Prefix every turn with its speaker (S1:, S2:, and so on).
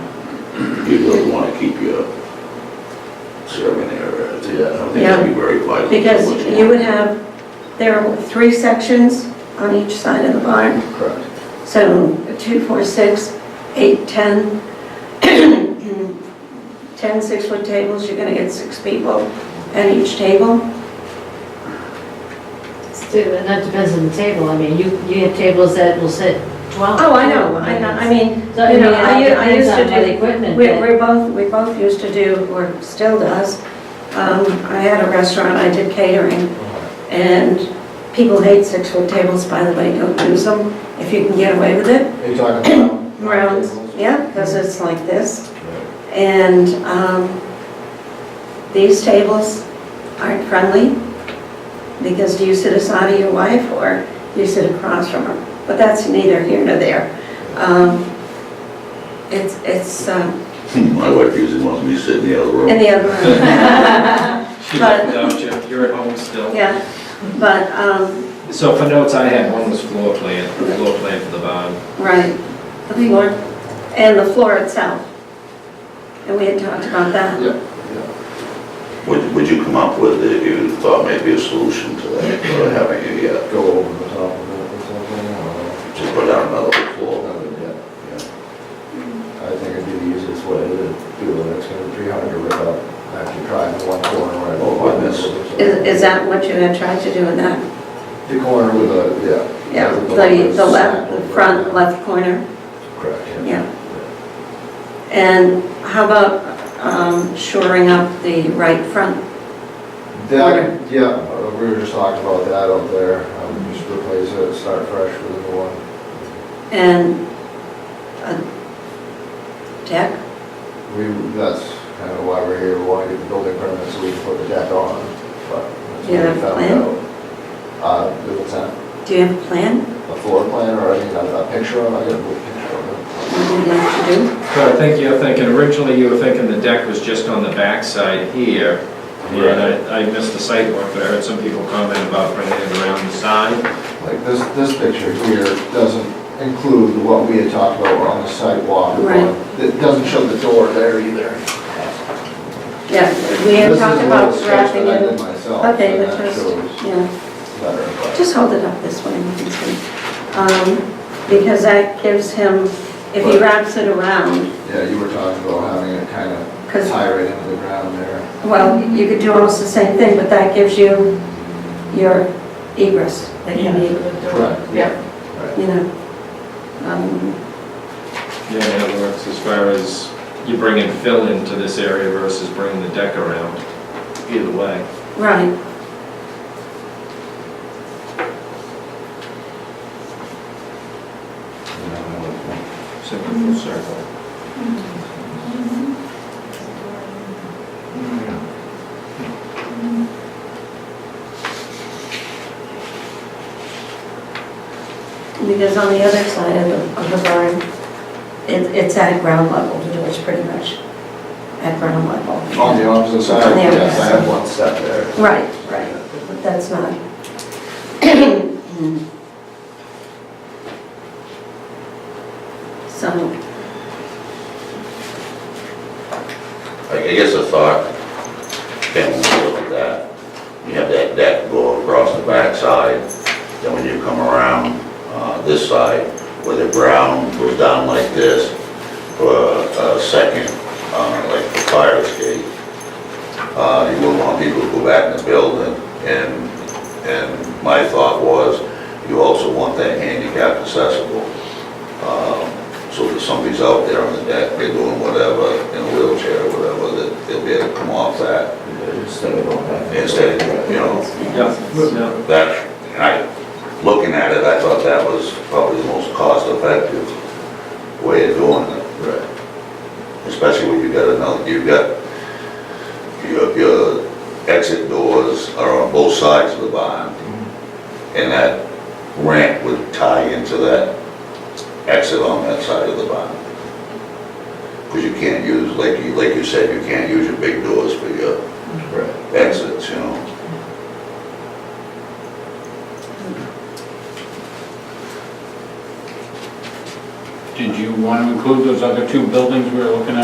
S1: you really want to keep your serving area. Yeah. I think that'd be very vital. to
S2: Because
S1: what
S2: you
S1: want.
S2: would have, there are three sections on each side of the barn.
S1: Correct.
S2: So two, four, six, eight, 10, 10 six-foot tables, you're going to get six people at each table.
S3: It's too- And that depends on the table, I mean, you, you have tables that will sit twelve.
S2: Oh, I know, I know, I mean,
S3: So, I
S2: you
S3: mean,
S2: know, I u-
S3: it
S2: I
S3: depends
S2: used to
S3: on what
S2: do,
S3: equipment.
S2: we,
S3: that-
S2: we both, we both used to do, or still does. Um, I had a restaurant, I did catering, and people hate six-foot tables, by the way, don't use them if you can get away with it.
S4: Are you talking about?
S2: Rounds,
S4: tables?
S2: yeah, because it's like this.
S4: Right.
S2: And um, these tables aren't friendly because do you sit aside of your wife or do you sit across from her? But that's neither here nor there. Um, It's, it's um,
S1: Hmm, My wife usually wants me to sit in the other room.
S2: in the other room.
S5: She left without you, you're at home still.
S2: Yeah, but, um,
S5: So for notes I had, one was floor plan, the floor plan for the barn.
S2: right, the floor, and the floor itself. And we had talked about that.
S4: Yeah.
S1: Would, would you come up with, if you thought maybe a solution to that, or having a, uh,
S4: Go over the top of it or something, I don't know.
S1: just put down another floor?
S4: Another dip. I think it'd be the easiest way to do it, it's gonna be three hundred without actually trying the one corner right
S1: Oh,
S4: over.
S1: goodness.
S2: Is, is that what you had tried to do in that?
S4: The corner with a, yeah.
S2: Yeah,
S4: with
S2: the, the
S4: slack
S2: left, the
S4: over it.
S2: front left corner,
S4: Correct, yeah.
S2: yeah. And how about um, shoring up the right front?
S4: That, yeah, uh, we were just talking about that up there, um, just replace it, start fresh with a new one.
S2: And a deck?
S4: We, that's kind of why we're here, we want to get the building permit so we can put the deck on, but. that's
S2: Do you
S4: what we
S2: have a
S4: found
S2: plan?
S4: out. Uh, do what's that,
S2: Do you have a plan?
S4: a floor plan or, I mean, a, a picture of, it? I got a little picture of it.
S2: What you'd like to do?
S5: So I think you're thinking, originally you were thinking the deck was just on the backside here. And I, I missed the site walk, but I heard some people comment about bringing it around the side.
S4: Like this, this picture here doesn't include what we had talked about on the sidewalk.
S2: Right.
S4: It doesn't show the door there either.
S2: Yeah, we had
S4: This is
S2: talked
S4: a
S2: about
S4: little sketch
S2: wrapping
S4: that I did
S2: it.
S4: myself,
S2: Okay,
S4: and
S2: that's
S4: that
S2: just,
S4: shows
S2: yeah,
S4: better, but-
S2: just hold it up this way, we can see. Um, Because that gives him, if he
S4: Right.
S2: wraps it around,
S4: Yeah, you were talking about having it kind of
S2: 'Cause-
S4: tie right into the ground there.
S2: well, you could do almost the same thing, but that gives you your egress that you need.
S4: Correct.
S2: Yeah.
S4: Right.
S2: you know, um,
S5: Yeah, in other words, as far as you bringing fill into this area versus bringing the deck around, either way.
S2: right.
S5: Simple full circle.
S2: Because on the other side of the, of the barn, it, it's at ground level, the door's pretty much at ground level.
S4: On the opposite side,
S2: On the
S4: yes,
S2: opposite
S4: I have one step there.
S2: Right, right, but that's not. So,
S1: I I guess I thought, Ben, when you look at that, you have that deck go across the backside, then when you come around uh, this side, where the ground goes down like this, for a second, uh, like the fire escape, uh, you wouldn't want people to go back in the building, and, and my thought was, you also want that handicapped accessible. Um, so if somebody's out there on the deck, they're doing whatever, in a wheelchair, or whatever, that they'll be able to come off that
S4: Instead of going back.
S1: instead, you know,
S5: Yeah.
S1: that, and I, looking at it, I thought that was probably the most cost-effective way of doing it,
S4: Right.
S1: especially when you got another, you've got, your, your exit doors are on both sides of the barn, and that ramp would tie into that exit on that side of the barn. Because you can't use, like you, like you said, you can't use your big doors for your
S4: Right.
S1: exits, you know?
S6: Did you want to include those other two buildings we were looking at?